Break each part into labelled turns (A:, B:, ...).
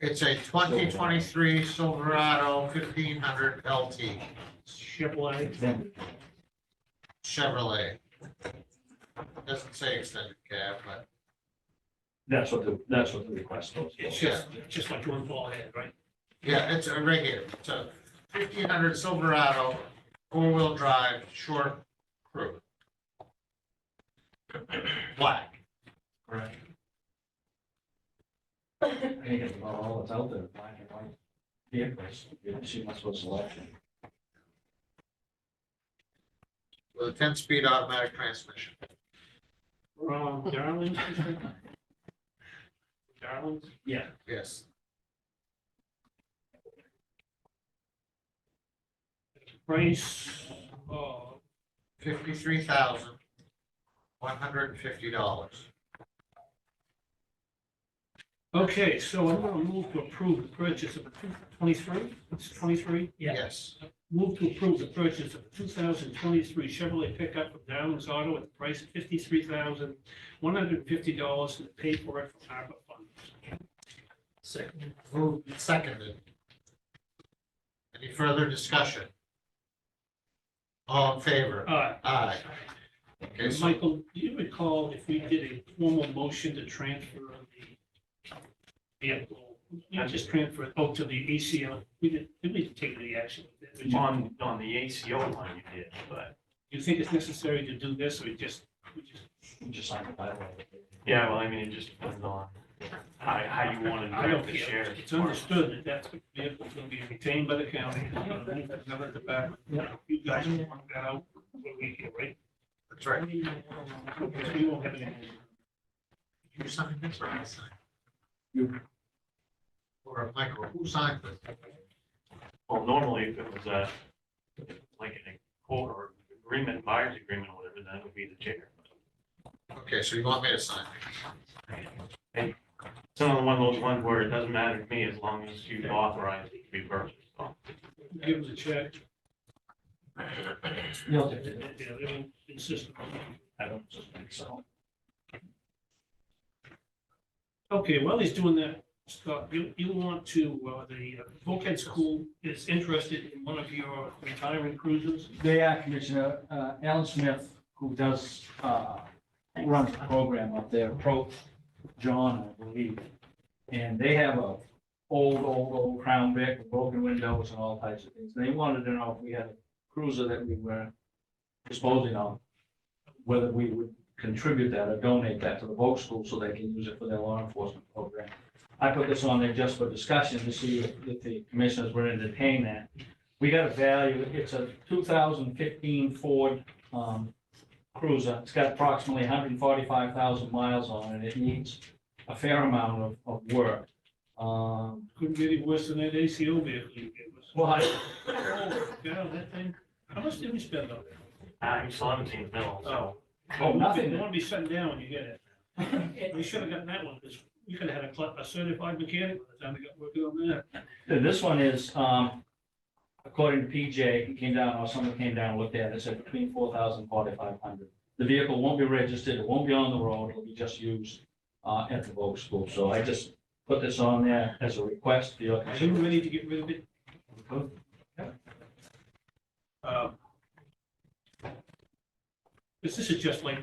A: It's a twenty twenty-three Silverado fifteen hundred LT
B: Chevrolet.
A: Chevrolet. Doesn't say extended cab, but
C: That's what the, that's what the request was.
B: It's just, just like one ball head, right?
A: yeah, it's a regular, it's a fifteen hundred Silverado, four-wheel drive, short crew. Black.
C: Right. I think it's about all that's out there, black and white vehicles, you don't see much of a selection.
A: with a ten-speed automatic transmission.
B: From Darlington. Darlington.
C: Yeah.
A: Yes.
B: Price of
A: Fifty-three thousand, one hundred and fifty dollars.
B: Okay, so I'm gonna move to approve the purchase of twenty-three, it's twenty-three?
A: Yes.
B: Move to approve the purchase of two thousand twenty-three Chevrolet pickup from Downs Auto at the price of fifty-three thousand, one hundred and fifty dollars and pay for it from ARPA funds.
C: Second.
A: Moved and seconded. Any further discussion? All in favor?
B: Uh,
A: Aye. Okay, so
B: Michael, do you recall if we did a formal motion to transfer the vehicle? Not just transfer, it, oh, to the ACL, we didn't, did we take any action? Did we-
D: On, on the ACO line you did, but,
B: Do you think it's necessary to do this, or we just, we just
C: Just signed the bylaw.
D: yeah, well, I mean, it just depends on how, how you want
B: I don't
D: to
B: care.
D: share.
B: It's understood that that's what vehicle's gonna be retained by the county. Another department. You guys will work that out when we get right.
A: that's right.
B: Because we won't have any.
A: You signed this or I signed?
C: You.
A: Or Michael, who signed this?
D: Well, normally if it was a, like in a court or agreement, buyer's agreement or whatever, that would be the chair.
A: Okay, so you want me to sign?
D: It's another one of those ones where it doesn't matter to me as long as you authorize it to be purchased. so.
B: Give us a check.
C: No,
B: Yeah, they don't insist on it.
C: I don't think so.
B: Okay, while he's doing that, Scott, you, you want to, uh, the Volkhead School is interested in one of your retiring cruisers.
C: They are Commissioner, uh, Alan Smith, who does, uh, runs the program up there, Pro John, I believe. And they have a old, old, old Crown Vic, with broken windows and all types of things. They wanted to know if we had a cruiser that we were disposing of, whether we would contribute that or donate that to the Volk School so they can use it for their law enforcement program. I put this on there just for discussion to see if if the commissioners were entertaining that. We got a value, it's a two thousand fifteen Ford um, Cruiser. It's got approximately hundred and forty-five thousand miles on it. It needs a fair amount of, of work. Um,
B: Couldn't be any worse than that ACO vehicle you gave us.
C: well, I-
B: Oh, Yeah, that thing, how much did we spend on it?
D: I'm seventeen mil, so.
C: Oh, nothing.
B: You want to be sitting down when you get it. We should have gotten that one, because you could have had a cl- a certified mechanic by the time we got working on that.
C: And This one is, um, according to PJ, he came down, or someone came down, and looked at it, it said between four thousand, forty-five hundred. The vehicle won't be registered, it won't be on the road, it'll be just used, uh, at the Vogue School, so I just put this on there as a request for your
B: Are you
C: consideration.
B: ready to get rid of it? Um, This this is just like,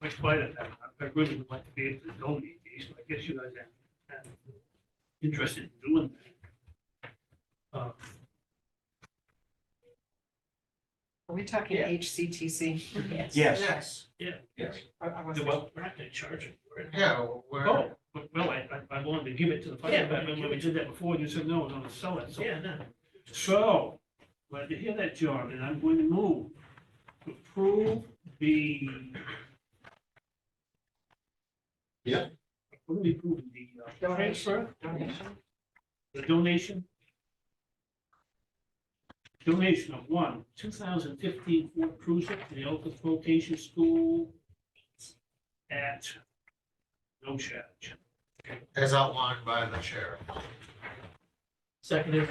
B: like quite a, I I really would like to be able to donate these, but I guess you guys are interested in doing that. Uh,
E: Are we talking HCTC?
C: Yes,
A: Yes.
C: yes.
E: I- I wasn't-
B: Well, we're not going to charge it for it.
A: Yeah, we're,
B: Oh, but- well, I, I- I wanted to give it to the fire
E: Yeah.
B: department when we did that before, and you said, no, we're gonna sell it, so.
E: Yeah, no.
B: So, glad to hear that, John, and I'm going to move to approve the.
A: Yeah.
B: What are we approving, the uh,
E: Donation.
B: transfer,
E: Donation?
B: the donation? Donation of one, two thousand fifteen Ford Cruiser to the Elkins Vocation School at no charge.
A: as outlined by the chair.
B: Seconded.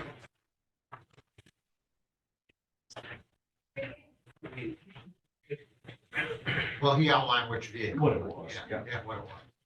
A: Well, he outlined which vehicle.
C: What it was,
A: Yeah,
C: yeah.
A: yeah, what it was.